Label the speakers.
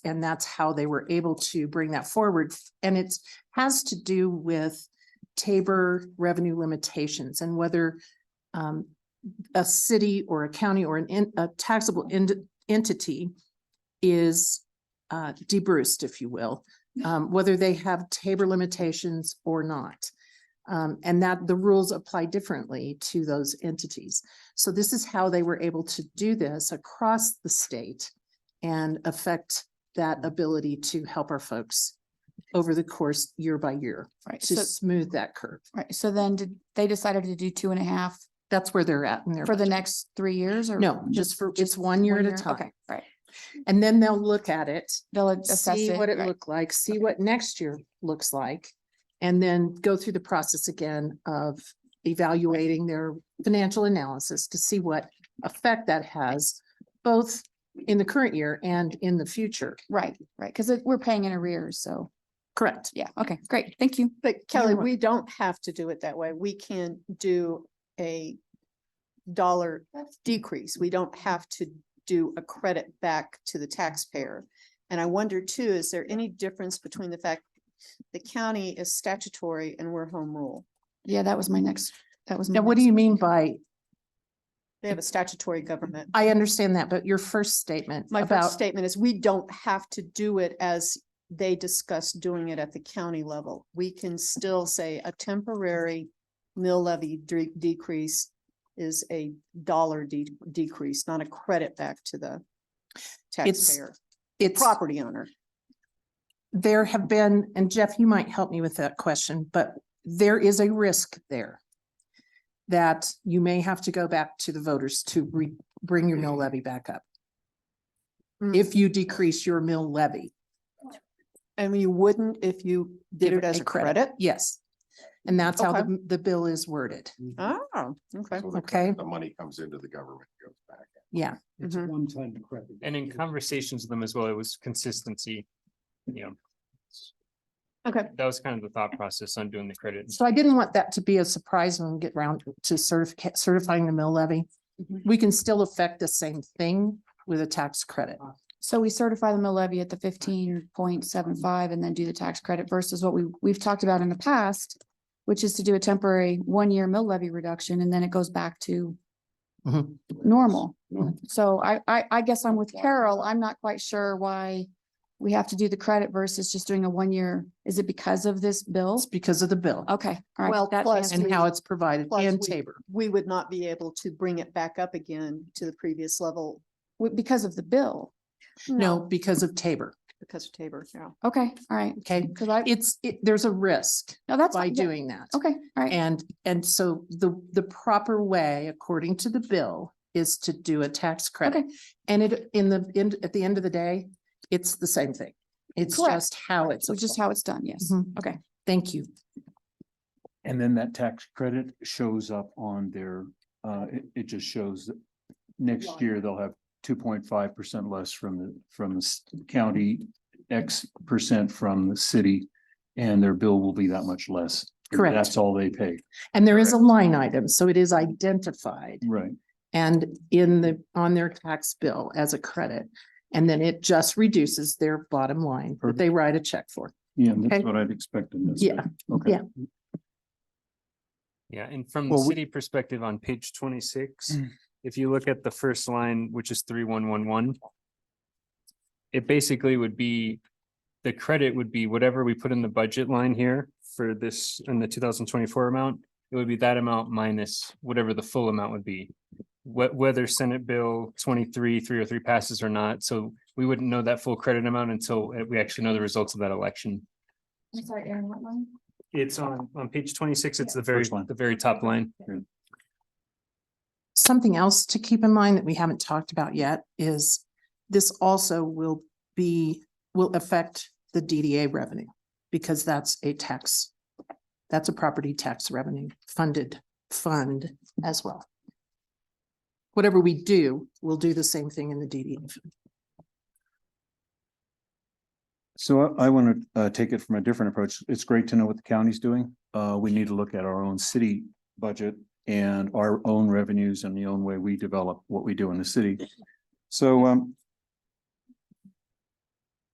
Speaker 1: and that's how they were able to bring that forward. And it's, has to do with Tabor revenue limitations and whether um, a city or a county or an, en- a taxable en- entity is uh, debruced, if you will, um, whether they have Tabor limitations or not. Um, and that the rules apply differently to those entities. So this is how they were able to do this across the state and affect that ability to help our folks over the course year by year
Speaker 2: Right,
Speaker 1: to
Speaker 2: so,
Speaker 1: smooth that curve.
Speaker 2: right, so then did, they decided to do two and a half
Speaker 1: That's where they're at in their.
Speaker 2: for the
Speaker 1: budget.
Speaker 2: next three years or?
Speaker 1: No, just for, it's one year at a time.
Speaker 2: Okay, right.
Speaker 1: And then they'll look at it,
Speaker 2: They'll assess
Speaker 1: see
Speaker 2: it.
Speaker 1: what it
Speaker 2: right.
Speaker 1: looked like, see what next year looks like. And then go through the process again of evaluating their financial analysis to see what effect that has. Both in the current year and in the future.
Speaker 2: Right, right, because we're paying in arrears, so,
Speaker 1: Correct.
Speaker 2: yeah, okay, great, thank you.
Speaker 3: But Kelly,
Speaker 2: wel-
Speaker 3: we don't have to do it that way. We can do a dollar decrease. We don't have to do a credit back to the taxpayer. And I wonder too, is there any difference between the fact the county is statutory and we're home rule?
Speaker 2: Yeah, that was my next, that was. my
Speaker 1: Now, what do
Speaker 2: next
Speaker 1: you
Speaker 2: one.
Speaker 1: mean by,
Speaker 3: They have a statutory government.
Speaker 1: I understand that, but your first statement
Speaker 3: My first
Speaker 1: about,
Speaker 3: statement is we don't have to do it as they discuss doing it at the county level. We can still say a temporary mill levy dre- decrease is a dollar de- decrease, not a credit back to the taxpayer,
Speaker 1: it's.
Speaker 3: property owner.
Speaker 1: there have been, and Jeff, you might help me with that question, but there is a risk there that you may have to go back to the voters to re, bring your mill levy back up.
Speaker 3: Mm.
Speaker 1: If you decrease your mill levy.
Speaker 3: And you wouldn't if you did
Speaker 1: give
Speaker 3: it as a credit?
Speaker 1: Yes. And that's how
Speaker 3: Okay.
Speaker 1: the, the bill is worded.
Speaker 3: Oh, okay.
Speaker 4: So the-
Speaker 1: Okay.
Speaker 4: The money comes into the government, goes back.
Speaker 1: Yeah.
Speaker 5: It's
Speaker 3: Mhm.
Speaker 5: one time credit.
Speaker 6: And in conversations with them as well, it was consistency. You know,
Speaker 3: Okay.
Speaker 6: that was kind of the thought process on doing the credit.
Speaker 1: So I didn't want that to be a surprise when we get round to certific- certifying the mill levy.
Speaker 3: Mhm.
Speaker 1: We can still affect the same thing with a tax credit.
Speaker 2: So we certify the mill levy at the fifteen point seven five and then do the tax credit versus what we, we've talked about in the past, which is to do a temporary one-year mill levy reduction and then it goes back to
Speaker 1: Mhm.
Speaker 2: normal. So I, I, I guess I'm with Carol. I'm not quite sure why we have to do the credit versus just doing a one-year. Is it because of this bill?
Speaker 1: It's because of the bill
Speaker 2: Okay, all
Speaker 3: Well,
Speaker 2: right. that
Speaker 3: plus-
Speaker 1: and
Speaker 2: answers-
Speaker 1: how it's provided
Speaker 3: Plus
Speaker 1: and
Speaker 3: we-
Speaker 1: Tabor.
Speaker 3: We would not be able to bring it back up again to the previous level
Speaker 2: w- Because of the bill.
Speaker 1: No, because of Tabor.
Speaker 3: because of Tabor, yeah.
Speaker 2: Okay, all right.
Speaker 1: Okay.
Speaker 2: Because I,
Speaker 1: It's, it, there's a risk
Speaker 2: no, that's.
Speaker 1: by
Speaker 2: fine, yeah,
Speaker 1: doing that.
Speaker 2: Okay, all right.
Speaker 1: And, and so the, the proper way, according to the bill, is to do a tax credit. And it, in the, end at the end of the day, it's the same thing. It's
Speaker 2: Correct.
Speaker 1: just how it's.
Speaker 2: So just
Speaker 1: applied.
Speaker 2: how it's done, yes.
Speaker 1: Mhm.
Speaker 2: Okay.
Speaker 1: Thank you.
Speaker 5: And then that tax credit shows up on their, uh, it, it just shows that next year they'll have two point five percent less from the, from the s- county, X percent from the city, and their bill will be that much less.
Speaker 1: Correct.
Speaker 5: That's all they pay,
Speaker 1: And there is a line item, so it is identified
Speaker 5: right?
Speaker 1: and in the, on their tax bill as a credit. And then it just reduces their bottom line that they write a check for.
Speaker 5: Yeah, that's
Speaker 1: Okay.
Speaker 5: what I'd expected. that's
Speaker 1: Yeah,
Speaker 5: good. Okay.
Speaker 1: yeah.
Speaker 6: Yeah, and from the
Speaker 5: Well, we- Mm.
Speaker 6: city perspective on page twenty-six, if you look at the first line, which is three one one one. It basically would be, the credit would be whatever we put in the budget line here for this in the two thousand twenty-four amount. It would be that amount minus whatever the full amount would be. Wh- whether Senate Bill twenty-three, three oh three passes or not, so we wouldn't know that full credit amount until uh, we actually know the results of that election.
Speaker 2: I'm sorry, Aaron, what line?
Speaker 6: It's on, on page twenty-six, it's the very,
Speaker 5: Which line?
Speaker 6: the very top line.
Speaker 1: Something else to keep in mind that we haven't talked about yet is this also will be, will affect the DDA revenue because that's a tax, that's a property tax revenue funded fund as well. Whatever we do, we'll do the same thing in the DDA.
Speaker 5: So I, I want to, uh, take it from a different approach. It's great to know what the county's doing. Uh, we need to look at our own city budget and our own revenues and the own way we develop what we do in the city. So, um,